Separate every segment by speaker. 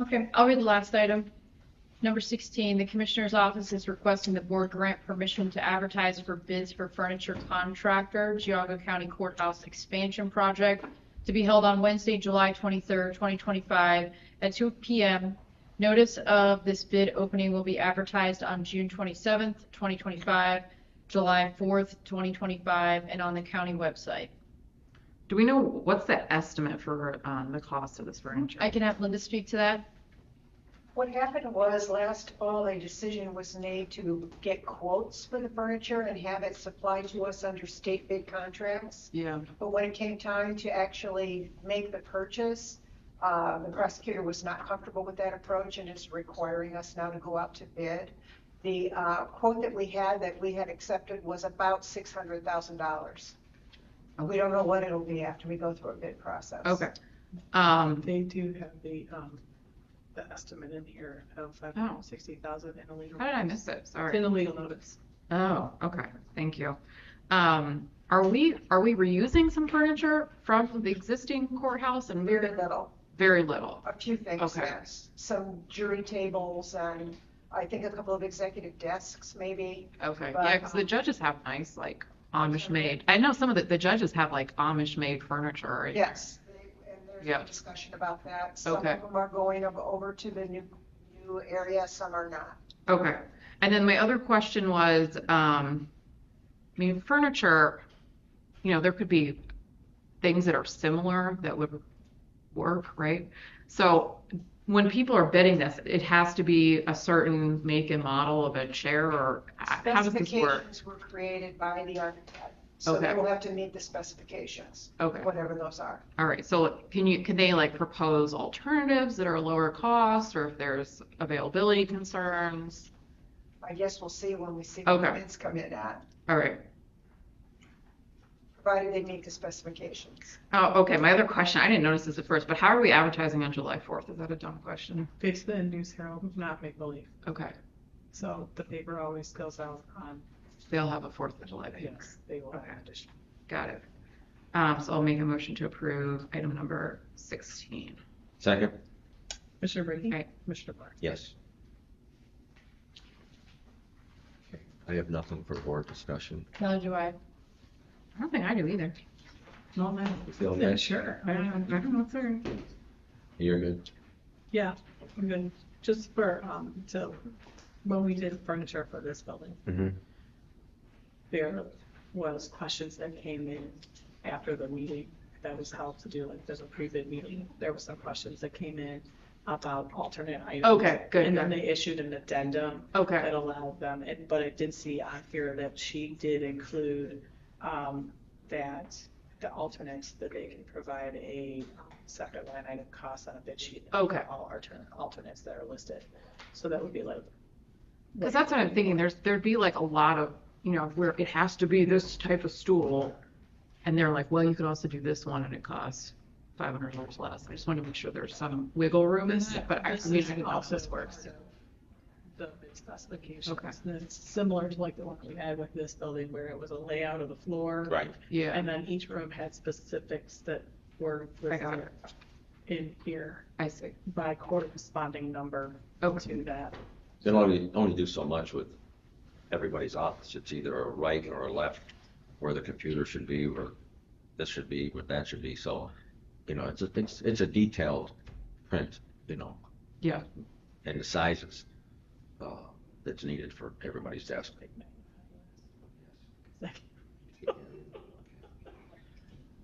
Speaker 1: Okay, I'll read the last item. Number 16, the Commissioner's Office is requesting the board grant permission to advertise for bids for furniture contractor, Geauga County Courthouse Expansion Project, to be held on Wednesday, July 23rd, 2025, at 2 PM. Notice of this bid opening will be advertised on June 27th, 2025, July 4th, 2025, and on the county website.
Speaker 2: Do we know, what's the estimate for um, the cost of this furniture?
Speaker 1: I can have Linda speak to that.
Speaker 3: What happened was last fall, a decision was made to get quotes for the furniture and have it supplied to us under state bid contracts.
Speaker 2: Yeah,
Speaker 3: But when it came time to actually make the purchase, uh, the prosecutor was not comfortable with that approach and is requiring us now to go out to bid. The uh, quote that we had, that we had accepted, was about $600,000. We don't know what it'll be after we go through a bid process.
Speaker 2: okay. Um,
Speaker 4: They do have the, um, the estimate in here of five hundred and sixty thousand in a legal.
Speaker 2: how did I miss it?
Speaker 4: It's in
Speaker 2: Sorry.
Speaker 4: the legal notice.
Speaker 2: Oh, okay, thank you. Um, are we, are we reusing some furniture from the existing courthouse and
Speaker 3: Very
Speaker 2: very,
Speaker 3: little.
Speaker 2: very little?
Speaker 3: A few things,
Speaker 2: Okay.
Speaker 3: yes. Some jury tables and I think a couple of executive desks, maybe.
Speaker 2: Okay, yeah, because the
Speaker 3: But- um,
Speaker 2: judges have nice, like Amish made, I know some of the, the judges have like Amish made furniture. right?
Speaker 3: Yes. And there's
Speaker 2: Yeah.
Speaker 3: no discussion about that. Some of
Speaker 2: Okay.
Speaker 3: them are going ov- over to the new, new area, some are not.
Speaker 2: Okay, and then my other question was, um, I mean, furniture, you know, there could be things that are similar that would work, right? So when people are bidding this, it has to be a certain make and model of a chair or how does this work?
Speaker 3: Specifications were created by the architect. So
Speaker 2: Okay.
Speaker 3: they will have to meet the specifications,
Speaker 2: Okay,
Speaker 3: whatever those are.
Speaker 2: all right, so can you, can they like propose alternatives that are lower cost or if there's availability concerns?
Speaker 3: I guess we'll see when we see the
Speaker 2: Okay.
Speaker 3: bids come in at,
Speaker 2: All right,
Speaker 3: provided they meet the specifications.
Speaker 2: oh, okay, my other question, I didn't notice this at first, but how are we advertising on July 4th? Is that a dumb question?
Speaker 4: It's the News Herald, not make believe.
Speaker 2: Okay,
Speaker 4: So the paper always goes out on,
Speaker 2: they'll have a Fourth of July page.
Speaker 4: yes, they will have to.
Speaker 2: Got it. Um, so I'll make a motion to approve item number sixteen.
Speaker 5: Second?
Speaker 4: Commissioner Brady?
Speaker 2: Aye.
Speaker 4: Commissioner Blair?
Speaker 5: Yes. I have nothing for board discussion.
Speaker 1: Neither do I.
Speaker 2: I don't think I do either. No, I
Speaker 5: You feel good?
Speaker 4: sure.
Speaker 2: I don't, I don't know what's there.
Speaker 5: You're good?
Speaker 4: Yeah, I'm good. Just for, um, to, when we did furniture for this building,
Speaker 5: Mm-hmm.
Speaker 4: there was questions that came in after the meeting that was held to do, like, there's a pre-bid meeting. There were some questions that came in about alternate items.
Speaker 2: Okay, good,
Speaker 4: And then
Speaker 2: good.
Speaker 4: they issued an addendum
Speaker 2: Okay,
Speaker 4: that allowed them, and, but I did see on here that she did include, um, that the alternates, that they can provide a separate line item cost on a bid sheet.
Speaker 2: Okay.
Speaker 4: All alternate, alternates that are listed, so that would be like.
Speaker 2: because that's what I'm thinking. There's, there'd be like a lot of, you know, where it has to be this type of stool. And they're like, well, you could also do this one and it costs five hundred dollars less. I just want to make sure there's some wiggle room in that, but I I
Speaker 4: This
Speaker 2: mean, I
Speaker 4: is
Speaker 2: don't know if
Speaker 4: also
Speaker 2: this works.
Speaker 4: The bid specifications,
Speaker 2: Okay.
Speaker 4: and it's similar to like the one we had with this building where it was a layout of the floor.
Speaker 5: Right.
Speaker 2: Yeah,
Speaker 4: And then each room had specifics that were
Speaker 2: I got it.
Speaker 4: listed in here
Speaker 2: I see.
Speaker 4: by corresponding number
Speaker 2: Okay,
Speaker 4: to that.
Speaker 5: They only, only do so much with everybody's office. It's either a right or a left where the computer should be, or this should be, where that should be. So, you know, it's a, it's, it's a detailed print, you know,
Speaker 2: yeah,
Speaker 5: and the sizes, uh, that's needed for everybody's desk.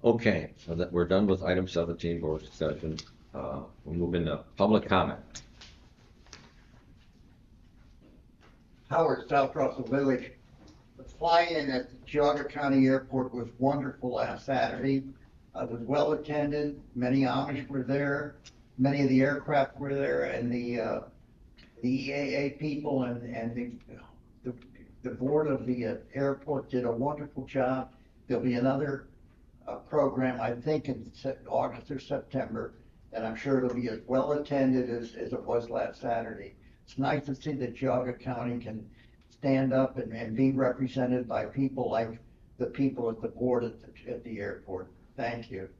Speaker 5: Okay, so that, we're done with item seventeen, board discussion. Uh, we'll move into public comment.
Speaker 6: Howard, South Russell Village. The fly-in at the Geauga County Airport was wonderful last Saturday. Uh, It was well attended, many Amish were there, many of the aircraft were there, and the, uh, the EAA people and, and the, the, the board of the uh, airport did a wonderful job. There'll be another, uh, program, I think, in Sep- August or September, and I'm sure it'll be as well attended as, as it was last Saturday. It's nice to see that Geauga County can stand up and, and be represented by people like the people at the board at the, at the airport. Thank you.